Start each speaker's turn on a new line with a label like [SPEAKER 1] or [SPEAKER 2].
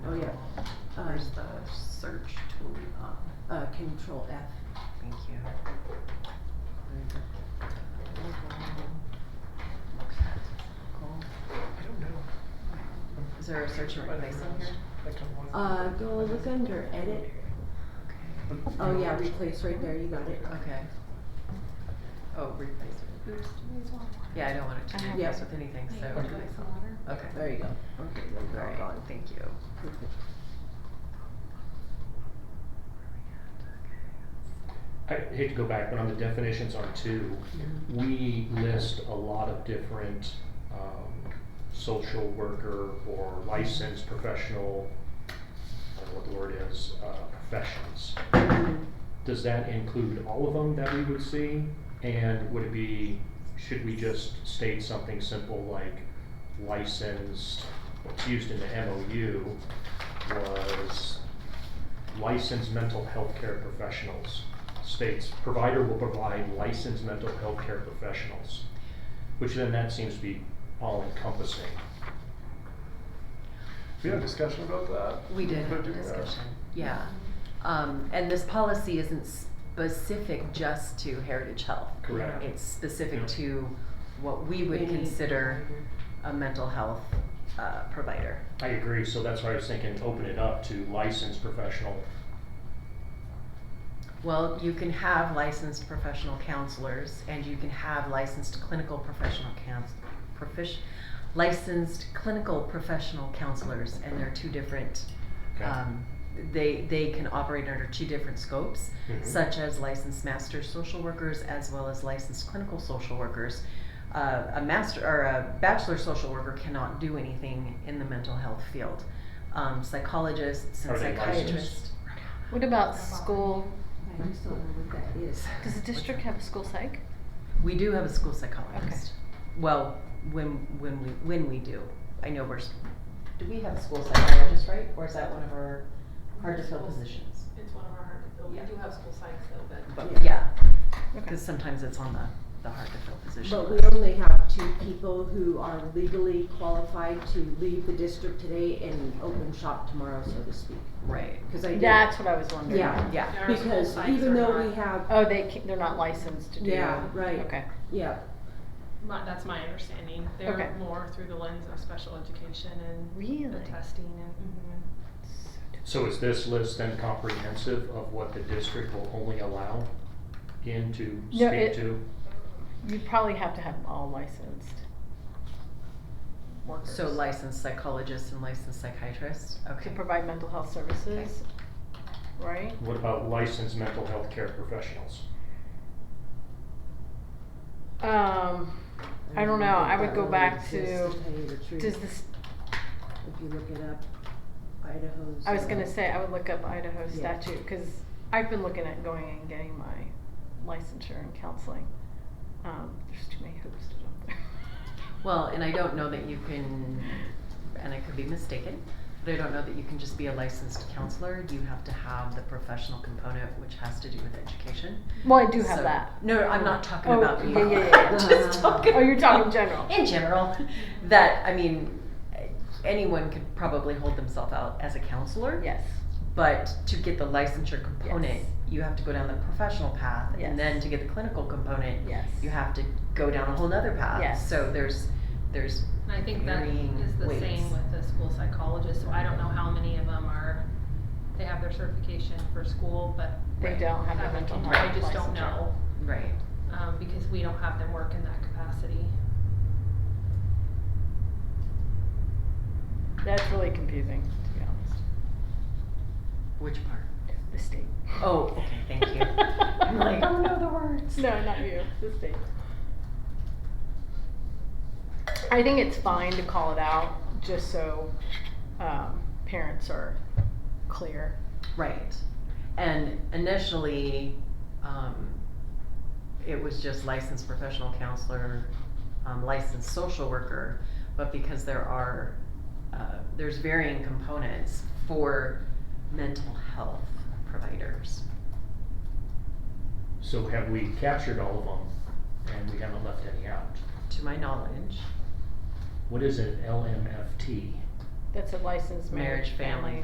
[SPEAKER 1] Oh, Uh,
[SPEAKER 2] search tool, uh, uh, control F.
[SPEAKER 1] Thank you.
[SPEAKER 3] I don't know.
[SPEAKER 1] Is there a search and replace on here?
[SPEAKER 3] Like on one of
[SPEAKER 2] Uh,
[SPEAKER 3] the-
[SPEAKER 2] go look under edit, oh yeah, replace right there, you got it.
[SPEAKER 1] Okay. Oh, replace.
[SPEAKER 4] Oops, do these one.
[SPEAKER 1] Yeah, I don't want it to
[SPEAKER 4] I
[SPEAKER 1] be
[SPEAKER 4] have
[SPEAKER 1] replaced
[SPEAKER 2] it.
[SPEAKER 1] with anything,
[SPEAKER 4] Maybe
[SPEAKER 1] so.
[SPEAKER 4] replace the water.
[SPEAKER 1] Okay.
[SPEAKER 2] There you go, okay, those are all
[SPEAKER 1] Alright,
[SPEAKER 2] gone.
[SPEAKER 1] thank you.
[SPEAKER 2] Perfect.
[SPEAKER 5] I hate to go back, but on the definitions on two, we list a lot of different um, social worker or licensed professional, I don't know what the word is, uh, professions. Does that include all of them that we would see? And would it be, should we just state something simple like licensed, what's used in the MOU was licensed mental health care professionals? states provider will provide licensed mental health care professionals, which then that seems to be all encompassing.
[SPEAKER 3] We had a discussion about that.
[SPEAKER 1] We did
[SPEAKER 3] About
[SPEAKER 1] have a
[SPEAKER 3] doing that.
[SPEAKER 1] discussion, yeah. Um, and this policy isn't specific just to Heritage Health.
[SPEAKER 5] Correct.
[SPEAKER 1] It's
[SPEAKER 5] Yeah.
[SPEAKER 1] specific to what we would
[SPEAKER 2] Any-
[SPEAKER 1] consider a mental health, uh, provider.
[SPEAKER 5] I agree, so that's why I was thinking, open it up to licensed professional.
[SPEAKER 1] Well, you can have licensed professional counselors and you can have licensed clinical professional counsel, profish, licensed clinical professional counselors and they're two different,
[SPEAKER 5] Okay.
[SPEAKER 1] um, they, they can operate under two different scopes,
[SPEAKER 5] Mhm.
[SPEAKER 1] such as licensed master social workers as well as licensed clinical social workers. Uh, a master or a bachelor social worker cannot do anything in the mental health field. Um, psychologists and
[SPEAKER 5] Are they licensed?
[SPEAKER 1] psychiatrists.
[SPEAKER 6] What about school?
[SPEAKER 2] I just don't know what that is.
[SPEAKER 6] Does the district have a school psych?
[SPEAKER 1] We do have a school psychologist. Well, when, when we, when we do, I know we're, s- do we have a school psychologist, right? Or is that one of our hard to fill positions?
[SPEAKER 7] It's one of our hard to fill, we
[SPEAKER 1] Yeah.
[SPEAKER 7] do have school psychs though, but.
[SPEAKER 1] But, yeah,
[SPEAKER 6] Okay.
[SPEAKER 1] cause sometimes it's on the, the hard to fill position.
[SPEAKER 2] But we
[SPEAKER 1] list.
[SPEAKER 2] only have two people who are legally qualified to leave the district today and open shop tomorrow, so to speak.
[SPEAKER 1] Right,
[SPEAKER 2] Cause I did, yeah,
[SPEAKER 6] That's what I was wondering.
[SPEAKER 1] yeah.
[SPEAKER 7] Our school
[SPEAKER 2] because
[SPEAKER 7] psychs
[SPEAKER 2] even
[SPEAKER 7] are
[SPEAKER 2] though we
[SPEAKER 7] not-
[SPEAKER 2] have,
[SPEAKER 6] Oh, they, ca- they're not licensed to do.
[SPEAKER 2] Yeah, right.
[SPEAKER 6] Okay.
[SPEAKER 2] yeah,
[SPEAKER 7] My, that's my understanding,
[SPEAKER 6] Okay.
[SPEAKER 7] they're more through the lens of special education and the
[SPEAKER 6] Really?
[SPEAKER 7] testing and, mhm.
[SPEAKER 5] So is this list then comprehensive of what the district will only allow in to
[SPEAKER 6] No,
[SPEAKER 5] speak
[SPEAKER 6] it-
[SPEAKER 5] to?
[SPEAKER 6] You'd probably have to have them all licensed. Workers.
[SPEAKER 1] So licensed psychologists and licensed psychiatrists,
[SPEAKER 6] To
[SPEAKER 1] okay.
[SPEAKER 6] provide mental health services, right?
[SPEAKER 5] What about licensed mental health care professionals?
[SPEAKER 6] Um, I don't know, I would go back to, does this,
[SPEAKER 2] If you look it up, Idaho's.
[SPEAKER 6] I was
[SPEAKER 2] uh,
[SPEAKER 6] gonna say, I would look up Idaho
[SPEAKER 2] Yeah.
[SPEAKER 6] statute, cause I've been looking at going and getting my licensure and counseling. Um, there's too many hoops to jump through.
[SPEAKER 1] Well, and I don't know that you can, and I could be mistaken, but I don't know that you can just be a licensed counselor. You have to have the professional component, which has to do with education.
[SPEAKER 6] Well, I do have
[SPEAKER 1] So-
[SPEAKER 6] that.
[SPEAKER 1] No, I'm not talking
[SPEAKER 6] Oh,
[SPEAKER 1] about you.
[SPEAKER 6] yeah, yeah, yeah,
[SPEAKER 2] yeah.
[SPEAKER 1] Just talking.
[SPEAKER 6] Oh, you're talking
[SPEAKER 1] about-
[SPEAKER 6] general.
[SPEAKER 1] In general, that I mean, anyone could probably hold themselves out as a counselor.
[SPEAKER 6] Yes.
[SPEAKER 1] But to get the licensure component,
[SPEAKER 6] Yes.
[SPEAKER 1] you have to go down the professional path,
[SPEAKER 6] Yes.
[SPEAKER 1] and then to get the clinical component,
[SPEAKER 6] Yes.
[SPEAKER 1] you have to go down a whole nother path.
[SPEAKER 6] Yes.
[SPEAKER 1] So there's, there's
[SPEAKER 7] And I think that
[SPEAKER 1] varying
[SPEAKER 7] is the same
[SPEAKER 1] weights.
[SPEAKER 7] with the school psychologist, so I don't know how many of them are, they have their certification for school, but.
[SPEAKER 6] They don't have
[SPEAKER 7] haven't-
[SPEAKER 6] a mental health.
[SPEAKER 7] I just don't
[SPEAKER 6] licensure.
[SPEAKER 7] know,
[SPEAKER 1] right.
[SPEAKER 7] um, because we don't have them work in that capacity.
[SPEAKER 6] That's really confusing, to be honest.
[SPEAKER 1] Which part?
[SPEAKER 6] The state.
[SPEAKER 1] Oh, okay, thank you. I'm like, oh no, the words.
[SPEAKER 6] No, not you. The state. I think it's fine to call it out just so um, parents are clear.
[SPEAKER 1] Right. And initially, um, it was just licensed professional counselor, um, licensed social worker, but because there are, uh, there's varying components for mental health providers.
[SPEAKER 5] So have we captured all of them and we haven't left any out?
[SPEAKER 1] To my knowledge,
[SPEAKER 5] What is an LMFT?
[SPEAKER 6] That's a licensed marriage,
[SPEAKER 1] marriage, family,